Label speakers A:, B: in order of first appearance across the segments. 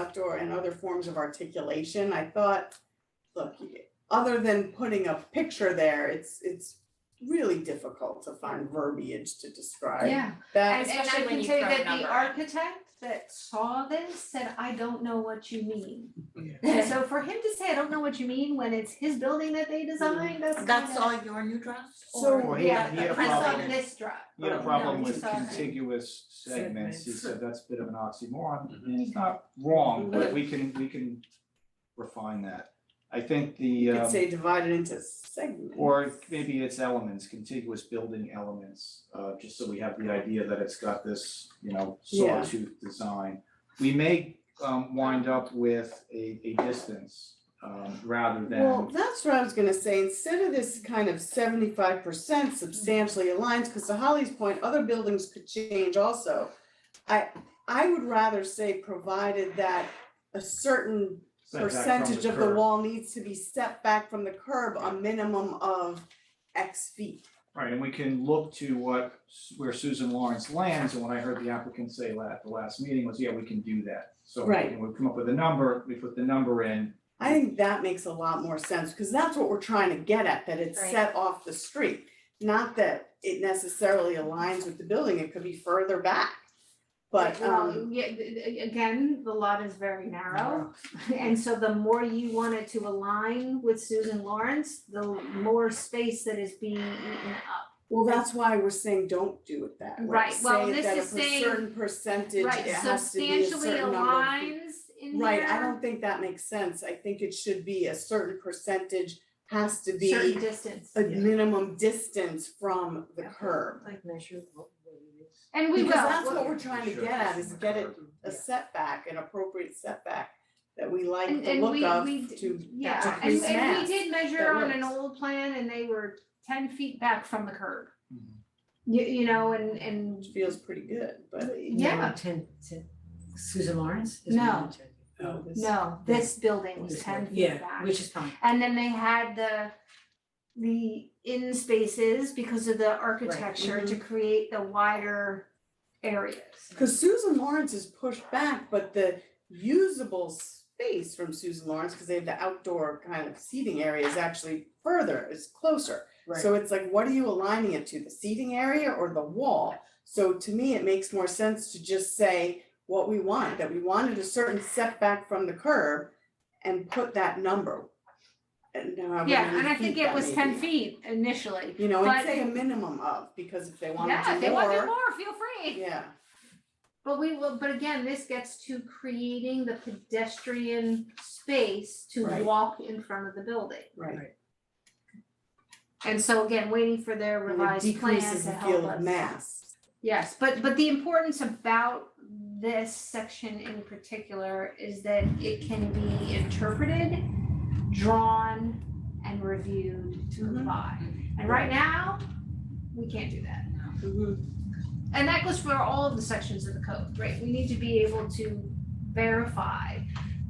A: outdoor and other forms of articulation, I thought, look, other than putting a picture there, it's, it's really difficult to find verbiage to describe
B: Yeah,
A: that.
B: and and I
C: Especially when
B: can
C: you
B: tell you
C: throw
B: that
C: a number
B: the
C: in.
B: architect that saw this said, I don't know what you mean.
C: Yeah.
B: So for him to say, I don't know what you mean, when it's his building that they designed,
D: Mm,
B: that's kind
C: That's
B: of-
C: all your new draft?
A: So-
C: or-
E: Well, he
B: Yeah,
E: had, he had a
B: but he saw
E: problem,
B: this drop.
E: he had
A: Oh,
E: a
B: no,
E: problem
B: he
E: with
B: saw that.
E: contiguous segments, he said that's a bit of an oxymoron,
F: Mhm.
E: and it's not wrong, but we can, we can refine that. I think the,
A: You could
E: um,
A: say divided into segments.
E: or maybe it's elements, contiguous building elements, uh, just so we have the idea that it's got this, you know,
A: Yeah.
E: sawtooth design. We may, um, wind up with a, a distance, um, rather than.
A: Well, that's what I was gonna say, instead of this kind of seventy-five percent substantially aligns, because to Holly's point, other buildings could change also. I, I would rather say provided that a certain
E: set back from
A: percentage of the
E: curb.
A: wall needs to be set back from the curb, a minimum of X feet.
E: Right, and we can look to what, where Susan Lawrence lands, and what I heard the applicant say la- at the last meeting was, yeah, we can do that. So we
A: Right.
E: can- we come up with a number, we put the number in,
A: I think that makes a lot more sense, because that's what we're trying to get at, that it's
C: Right.
A: set off the street. Not that it necessarily aligns with the building, it could be further back. But,
B: Well,
A: um,
B: yeah, th- th- again, the lot is very narrow, and so the more you want it to align with Susan Lawrence, the more space that is being eaten up.
A: well, that's why we're saying don't do it that way.
B: Right, well,
A: Say
B: this
A: that
B: is
A: if
B: saying-
A: a certain percentage, it has
B: Right,
A: to be a
B: substantially
A: certain number of feet.
B: aligns in there.
A: Right, I don't think that makes sense, I think it should be a certain percentage has to be
B: Certain distance.
A: a minimum distance from the curb.
C: Like measure what
B: And we will.
A: Because that's
B: Well,
A: what we're trying to
E: Sure,
A: get at,
E: it's
A: is
E: in the
A: get it
E: curb.
A: a setback, an appropriate setback that we like
B: And
A: the
B: and
A: look
B: we
A: of
B: we
A: to,
B: d-
A: to
B: yeah, and
A: increase
B: and we
A: mass
B: did measure
A: that
B: on an
A: works.
B: old plan and they were ten feet back from the curb.
E: Mhm.
B: You you know, and and
A: which feels pretty good, but.
B: yeah,
C: Ten, ten, Susan Lawrence is
B: No.
C: one ten.
A: oh, this-
B: no, this building was
C: This
B: ten
C: one.
B: feet back.
C: Yeah, which is fine.
B: And then they had the the in spaces because of the architecture to create the wider areas.
A: Cause Susan Lawrence is pushed back, but the usable space from Susan Lawrence, cause they have the outdoor kind of seating area is actually further, is closer. So it's like, what are you aligning it to, the seating area or the wall? So to me, it makes more sense to just say what we want, that we wanted a certain setback from the curb and put that number. And now I'm
B: Yeah, and I
A: gonna
B: think it was ten feet initially.
A: You know,
B: but-
A: and say a minimum of, because if they want to do more.
B: Yeah, if they want to do more, feel free.
A: Yeah,
B: But we will, but again, this gets to creating the pedestrian space to
A: Right.
B: walk in front of the building.
A: right.
B: And so again, waiting for their
A: And it
B: revised plan to help us.
A: decreases the field of mass.
B: Yes, but but the importance about this section in particular is that it can be interpreted, drawn, and reviewed to
A: Mhm.
B: comply. And right now, we can't do that. Mm-hmm.
A: Mhm.
B: And that goes for all of the sections of the code, right? We need to be able to verify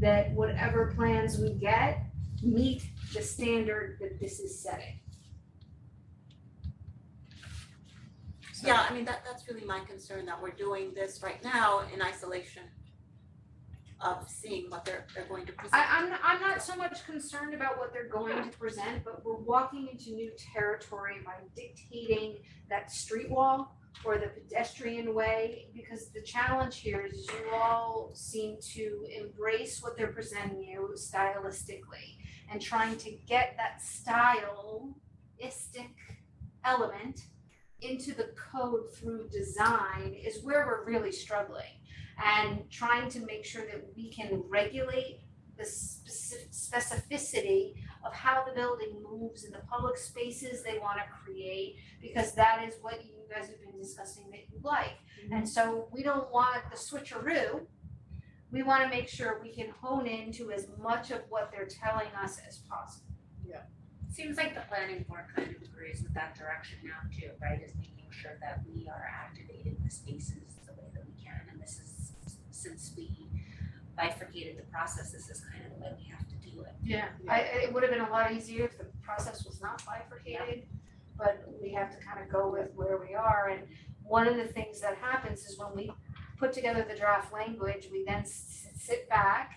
B: that whatever plans we get meet the standard that this is setting.
D: Yeah, I mean, that, that's really my concern, that we're doing this right now in isolation of seeing what they're, they're going to present.
B: I, I'm, I'm not so much concerned about what they're going to present, but we're walking into new territory by dictating that street wall or the pedestrian way, because the challenge here is you all seem to embrace what they're presenting you stylistically and trying to get that stylistic element into the code through design is where we're really struggling. And trying to make sure that we can regulate the speci- specificity of how the building moves and the public spaces they wanna create, because that is what you guys have been discussing that you like. And so we don't want the switcheroo. We wanna make sure we can hone into as much of what they're telling us as possible.
G: Seems like the planning board kind of agrees with that direction now too, right, is making sure that we are activating the spaces the way that we can, and this is, since we bifurcated the process, this is kind of the way we have to do it.
B: Yeah. I, I- it would have been a lot easier if the process was not bifurcated, but we have to kind of go with where we are. And one of the things that happens is when we put together the draft language, we then s- sit back